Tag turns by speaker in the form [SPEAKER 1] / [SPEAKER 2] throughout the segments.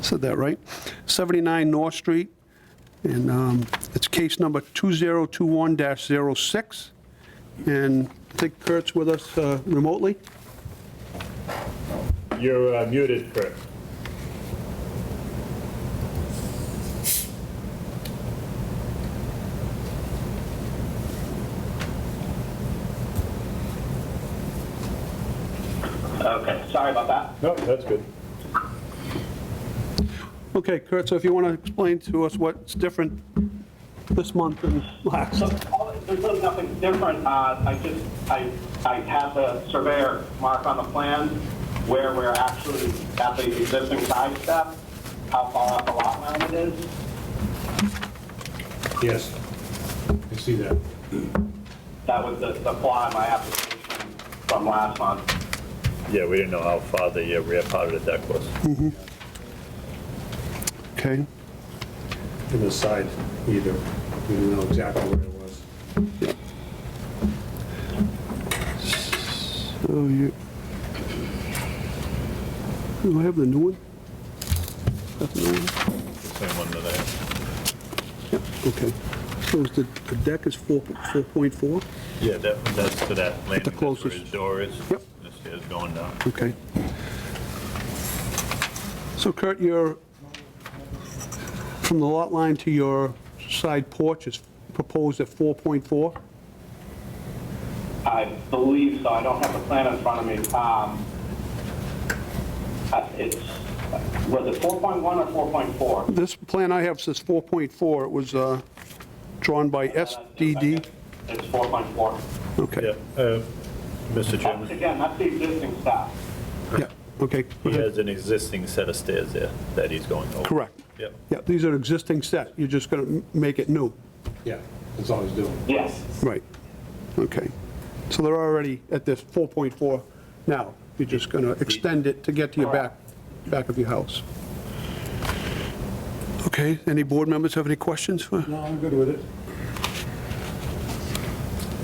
[SPEAKER 1] Said that right? 79 North Street, and um, it's case number 2021-06. And I think Kurt's with us uh, remotely.
[SPEAKER 2] You're uh, muted, Kurt.
[SPEAKER 3] Okay, sorry about that.
[SPEAKER 2] No, that's good.
[SPEAKER 1] Okay, Kurt, so if you want to explain to us what's different this month than last.
[SPEAKER 3] So, all- there's really nothing different, uh, I just, I, I had the surveyor mark on the plan where we're actually at the existing side step, how far off the lot line it is.
[SPEAKER 2] Yes, I see that.
[SPEAKER 3] That was the, the flaw in my application from last month.
[SPEAKER 4] Yeah, we didn't know how far the uh, rear part of the deck was.
[SPEAKER 1] Mm. Okay,
[SPEAKER 2] In the side either, we didn't know exactly where it was.
[SPEAKER 1] so you, do I have the new one? That's the new one?
[SPEAKER 4] Same one that I have.
[SPEAKER 1] Yep, okay. So is the, the deck is 4, 4.4?
[SPEAKER 4] Yeah, that, that's to that landing, that's where
[SPEAKER 1] closest.
[SPEAKER 4] his door is.
[SPEAKER 1] Yep.
[SPEAKER 4] The stairs going down.
[SPEAKER 1] Okay. So Kurt, your, from the lot line to your side porch is proposed at 4.4?
[SPEAKER 3] I believe so, I don't have the plan in front of me. Um, uh, It's, was it 4.1 or 4.4?
[SPEAKER 1] This plan I have says 4.4, it was uh, drawn by SDD?
[SPEAKER 3] It's 4.4.
[SPEAKER 1] Okay,
[SPEAKER 4] Yeah, uh, Mr.
[SPEAKER 3] That's-
[SPEAKER 4] Chairman,
[SPEAKER 3] Again, that's the existing step.
[SPEAKER 1] yeah, okay,
[SPEAKER 4] he has an existing set of stairs there that he's going over.
[SPEAKER 1] correct.
[SPEAKER 4] Yep.
[SPEAKER 1] Yeah, these are existing set, you're just going to make it new.
[SPEAKER 2] Yeah, that's all he's doing.
[SPEAKER 3] Yes,
[SPEAKER 1] Right, okay. So they're already at this 4.4 now, you're just going to extend it to get to your back, back of your house. Okay, any board members have any questions? Uh, for-
[SPEAKER 2] No, I'm good with it.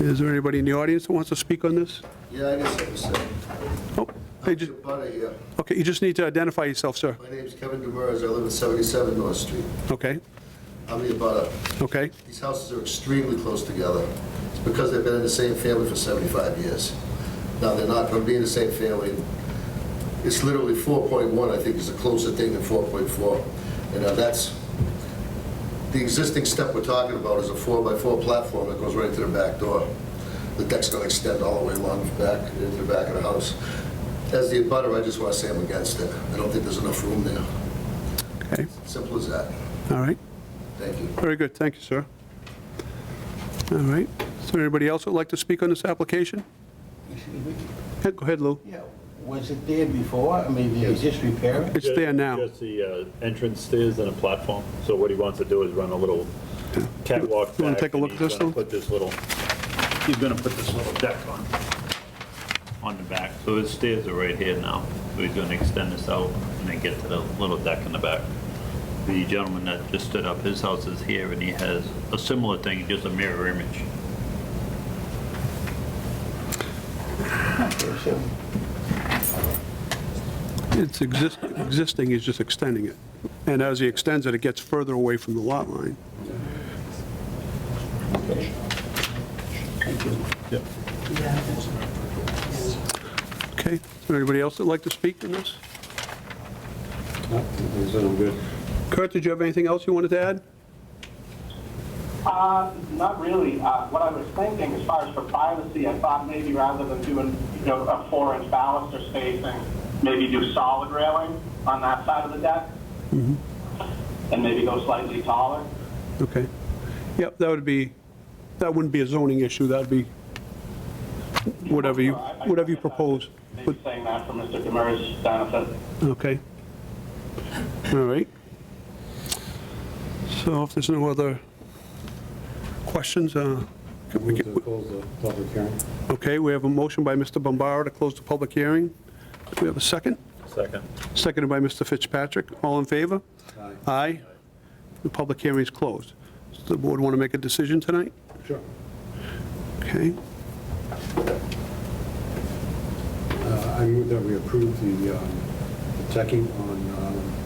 [SPEAKER 1] Is there anybody in the audience that wants to speak on this?
[SPEAKER 5] Yeah, I guess I was saying.
[SPEAKER 1] Oh, hey, ju-
[SPEAKER 5] here.
[SPEAKER 1] okay, you just need to identify yourself, sir.
[SPEAKER 5] My name's Kevin Demers, I live at 77 North Street.
[SPEAKER 1] Okay,
[SPEAKER 5] I'm the abutter.
[SPEAKER 1] okay,
[SPEAKER 5] These houses are extremely close together. It's because they've been in the same family for 75 years. Now, they're not going to be in the same family. It's literally 4.1, I think, is the closer thing than 4.4. And now that's, the existing step we're talking about is a four-by-four platform that goes right to the back door. The deck's going to extend all the way along the back, into the back of the house. As the abutter, I just want to say I'm against it. I don't think there's enough room there.
[SPEAKER 1] okay,
[SPEAKER 5] Simple as that.
[SPEAKER 1] all right.
[SPEAKER 5] Thank you.
[SPEAKER 1] Very good, thank you, sir. All right, is there anybody else that would like to speak on this application?
[SPEAKER 6] Excuse me?
[SPEAKER 1] Yeah, Go ahead, Lou.
[SPEAKER 6] Yeah, was it there before? I mean, did you just repair it?
[SPEAKER 1] It's there now.
[SPEAKER 4] Just the uh, entrance stairs and a platform. So what he wants to do is run a little catwalk back.
[SPEAKER 1] You wanna take a
[SPEAKER 4] and
[SPEAKER 1] look at
[SPEAKER 4] he's
[SPEAKER 1] this
[SPEAKER 4] gonna
[SPEAKER 1] one?
[SPEAKER 4] Put this little, he's gonna put this little deck on, on the back. So his stairs are right here now. So he's gonna extend this out and then get to the little deck in the back. The gentleman that just stood up, his house is here and he has a similar thing, just a mirror image.
[SPEAKER 6] So,
[SPEAKER 1] It's exist- existing, he's just extending it. And as he extends it, it gets further away from the lot line. Okay, is there anybody else that'd like to speak on this?
[SPEAKER 2] No, I said I'm good.
[SPEAKER 1] Kurt, did you have anything else you wanted to add?
[SPEAKER 3] uh, not really. Uh, what I was thinking, as far as for privacy, I thought maybe rather than doing, you know, a four-inch baluster spacing, maybe do solid railing on that side of the deck.
[SPEAKER 1] Mm-hmm.
[SPEAKER 3] And maybe go slightly taller.
[SPEAKER 1] Okay. Yep, that would be, that wouldn't be a zoning issue, that'd be whatever you,
[SPEAKER 3] I- I-
[SPEAKER 1] whatever you propose.
[SPEAKER 3] Maybe saying that for Mr. Demers' benefit.
[SPEAKER 1] Okay. All right. So if there's no other questions, uh, can we
[SPEAKER 2] Move
[SPEAKER 1] get-
[SPEAKER 2] to close the public hearing.
[SPEAKER 1] okay, we have a motion by Mr. Bombara to close the public hearing. Do we have a second?
[SPEAKER 4] Second.
[SPEAKER 1] Seconded by Mr. Fitzpatrick. All in favor?
[SPEAKER 2] Aye.
[SPEAKER 1] Aye. The public hearing is closed. Does the board want to make a decision tonight?
[SPEAKER 2] Sure.
[SPEAKER 1] Okay,
[SPEAKER 2] Uh, I move that we approve the um, the decking on um,